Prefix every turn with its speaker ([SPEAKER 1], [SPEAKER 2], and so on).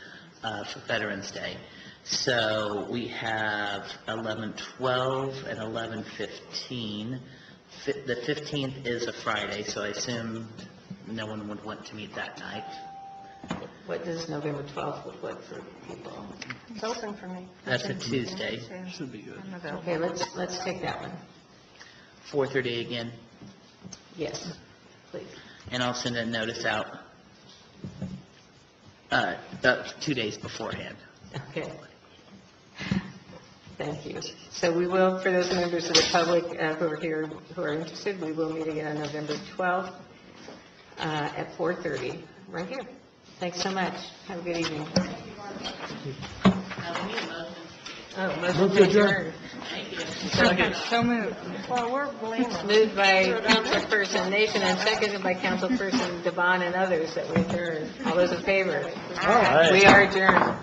[SPEAKER 1] uh, for Veterans Day. So we have 11:12 and 11:15. Fi- The 15th is a Friday, so I assume no one would want to meet that night.
[SPEAKER 2] What does November 12th look like for people?
[SPEAKER 3] It's open for me.
[SPEAKER 1] That's a Tuesday,
[SPEAKER 4] Should be good.
[SPEAKER 3] I'm available.
[SPEAKER 2] Okay, let's, let's take that one.
[SPEAKER 1] 4:30 again,
[SPEAKER 2] Yes, please.
[SPEAKER 1] and I'll send a notice out uh, uh, two days beforehand.
[SPEAKER 2] Okay. Thank you. So we will, for those members of the public uh, who are here, who are interested, we will meet again on November 12th uh, at 4:30, right here. Thanks so much. Have a good evening. Uh, Oh, motion to adjourn.
[SPEAKER 3] So moved. Well, we're blameless.
[SPEAKER 2] Moved by Councilperson Nation and seconded by Councilperson Devon and others that we adjourn. All those in favor? We are adjourned.